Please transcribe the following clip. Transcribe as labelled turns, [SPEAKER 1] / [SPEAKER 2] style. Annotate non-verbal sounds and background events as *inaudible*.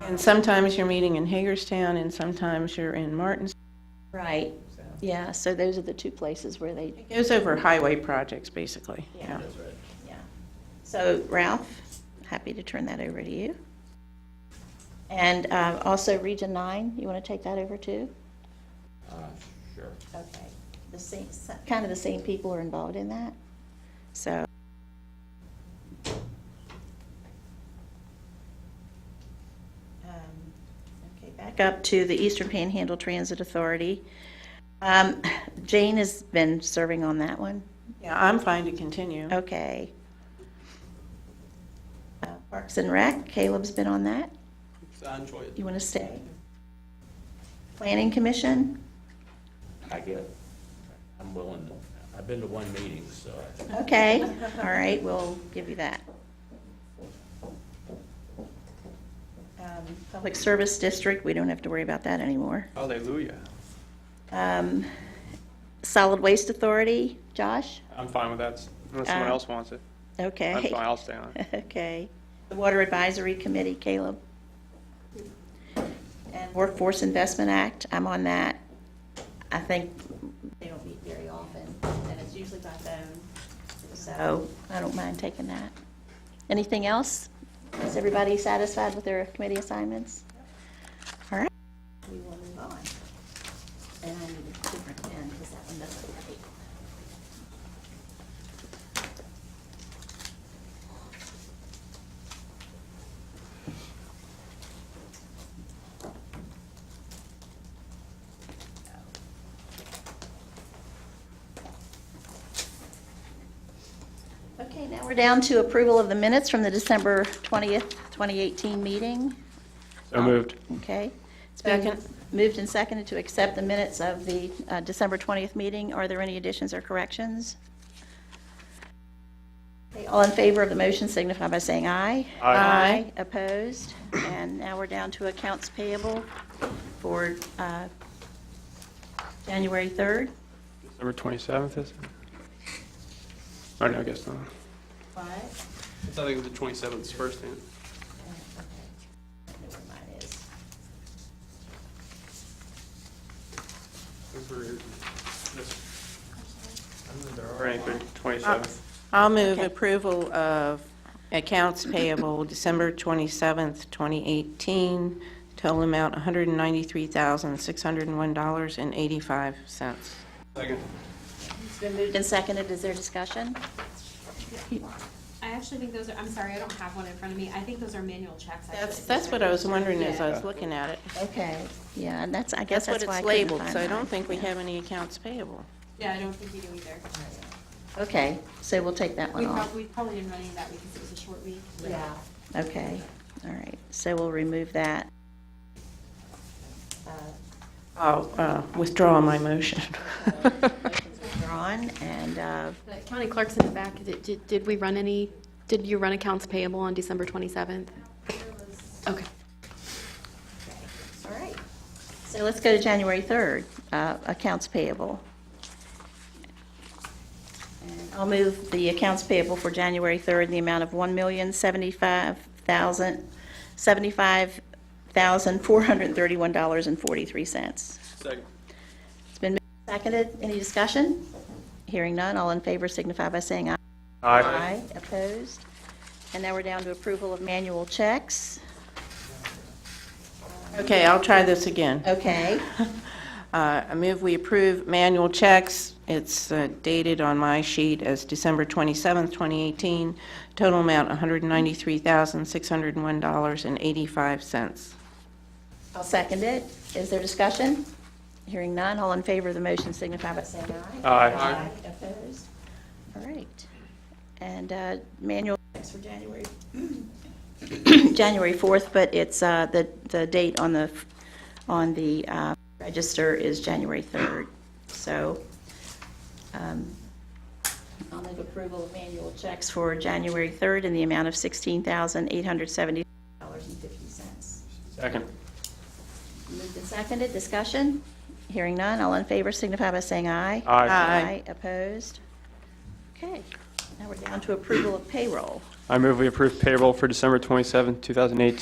[SPEAKER 1] And sometimes you're meeting in Hagerstown, and sometimes you're in Martins.
[SPEAKER 2] Right, yeah, so those are the two places where they,
[SPEAKER 1] It goes over highway projects, basically.
[SPEAKER 2] Yeah. yeah. So Ralph, happy to turn that over to you. And uh, also Region 9, you want to take that over too?
[SPEAKER 3] Sure.
[SPEAKER 2] Okay. The same, s- kind of the same people are involved in that, so. Um, Okay, back up to the Eastern Panhandle Transit Authority. Um, Jane has been serving on that one.
[SPEAKER 1] Yeah, I'm fine to continue.
[SPEAKER 2] Okay. Uh, Parks and Rec, Caleb's been on that.
[SPEAKER 4] I enjoy it.
[SPEAKER 2] You want to stay? Planning Commission?
[SPEAKER 3] I get, I'm willing, to- I've been to one meeting, so I-
[SPEAKER 2] Okay, all right, we'll give you that. Um, Public Service District, we don't have to worry about that anymore.
[SPEAKER 4] Hallelujah.
[SPEAKER 2] Um, Solid Waste Authority, Josh?
[SPEAKER 4] I'm fine with that, unless someone
[SPEAKER 2] Uh,
[SPEAKER 4] else wants it.
[SPEAKER 2] Okay.
[SPEAKER 4] I'm fine, I'll stay on
[SPEAKER 2] *laughs*
[SPEAKER 4] it.
[SPEAKER 2] Okay. The Water Advisory Committee, Caleb. And Workforce Investment Act, I'm on that. I think they don't meet very often, and it's usually by phone, so I don't mind taking that. Anything else? Is everybody satisfied with their committee assignments? All right. We will move on. And I need a different pen, because that one doesn't write. Okay, now we're down to approval of the minutes from the December 20th, 2018 meeting.
[SPEAKER 4] So moved.
[SPEAKER 2] Okay. It's been moved and seconded to accept the minutes of the uh, December 20th meeting. Are there any additions or corrections? Okay, All in favor of the motion signify by saying aye.
[SPEAKER 1] Aye.
[SPEAKER 2] Opposed? And now we're down to accounts payable for uh, January 3rd.
[SPEAKER 4] December 27th, is it? Oh, no, I guess not.
[SPEAKER 2] What?
[SPEAKER 4] I think it was the 27th, is first hand.
[SPEAKER 2] I know where mine is.
[SPEAKER 4] Or anything, 27th.
[SPEAKER 1] I'll move approval of accounts payable December 27th, 2018, total amount $193,601.85.
[SPEAKER 4] Second.
[SPEAKER 2] It's been moved and seconded. Is there discussion?
[SPEAKER 5] I actually think those are, I'm sorry, I don't have one in front of me. I think those are manual checks. actually.
[SPEAKER 1] That's, that's what I was wondering uh, as I was
[SPEAKER 3] Yeah.
[SPEAKER 1] looking at it.
[SPEAKER 2] Okay, yeah, and that's, I guess
[SPEAKER 1] That's what
[SPEAKER 2] that's why I
[SPEAKER 1] it's
[SPEAKER 2] couldn't
[SPEAKER 1] labeled,
[SPEAKER 2] find
[SPEAKER 1] so I
[SPEAKER 2] mine.
[SPEAKER 1] don't think we
[SPEAKER 2] Yeah.
[SPEAKER 1] have any accounts payable.
[SPEAKER 5] Yeah, I don't think we do either.
[SPEAKER 2] Okay, so we'll take that
[SPEAKER 5] We
[SPEAKER 2] one off.
[SPEAKER 5] probably, we probably didn't run any that week because it was a short week.
[SPEAKER 2] Yeah. Okay, all right, so we'll remove that.
[SPEAKER 1] I'll uh, withdraw my
[SPEAKER 2] *laughs*
[SPEAKER 1] motion.
[SPEAKER 2] Drawn, and, uh,
[SPEAKER 6] The County clerk's in the back. Did- Did did we run any, did you run accounts payable on December 27th? Okay.
[SPEAKER 2] all right. So let's go to January 3rd, uh, accounts payable. And I'll move the accounts payable for January 3rd in the amount of $1,075,000, $75,431.43.
[SPEAKER 4] Second.
[SPEAKER 2] It's been moved and seconded. Any discussion? Hearing none. All in favor signify by saying aye. Aye. Opposed? And now we're down to approval of manual checks.
[SPEAKER 1] Okay, I'll try this again.
[SPEAKER 2] Okay.
[SPEAKER 1] Uh, I move we approve manual checks. It's uh, dated on my sheet as December 27th, 2018, total amount $193,601.85.
[SPEAKER 2] I'll second it. Is there discussion? Hearing none. All in favor of the motion signify by saying aye.
[SPEAKER 4] Aye.
[SPEAKER 2] Opposed? All right. And uh, manual checks for January, *clears throat* January 4th, but it's, uh, the, the date on the, on the uh, register is January 3rd. So um, I'll move approval of manual checks for January 3rd in the amount of $16,870.50.
[SPEAKER 4] Second.
[SPEAKER 2] Moved and seconded, discussion? Hearing none, all in favor signify by saying aye.
[SPEAKER 4] Aye.
[SPEAKER 1] Aye.
[SPEAKER 2] opposed? Okay, now we're down to approval of payroll.
[SPEAKER 4] I move we approve payroll for December 27th, 2018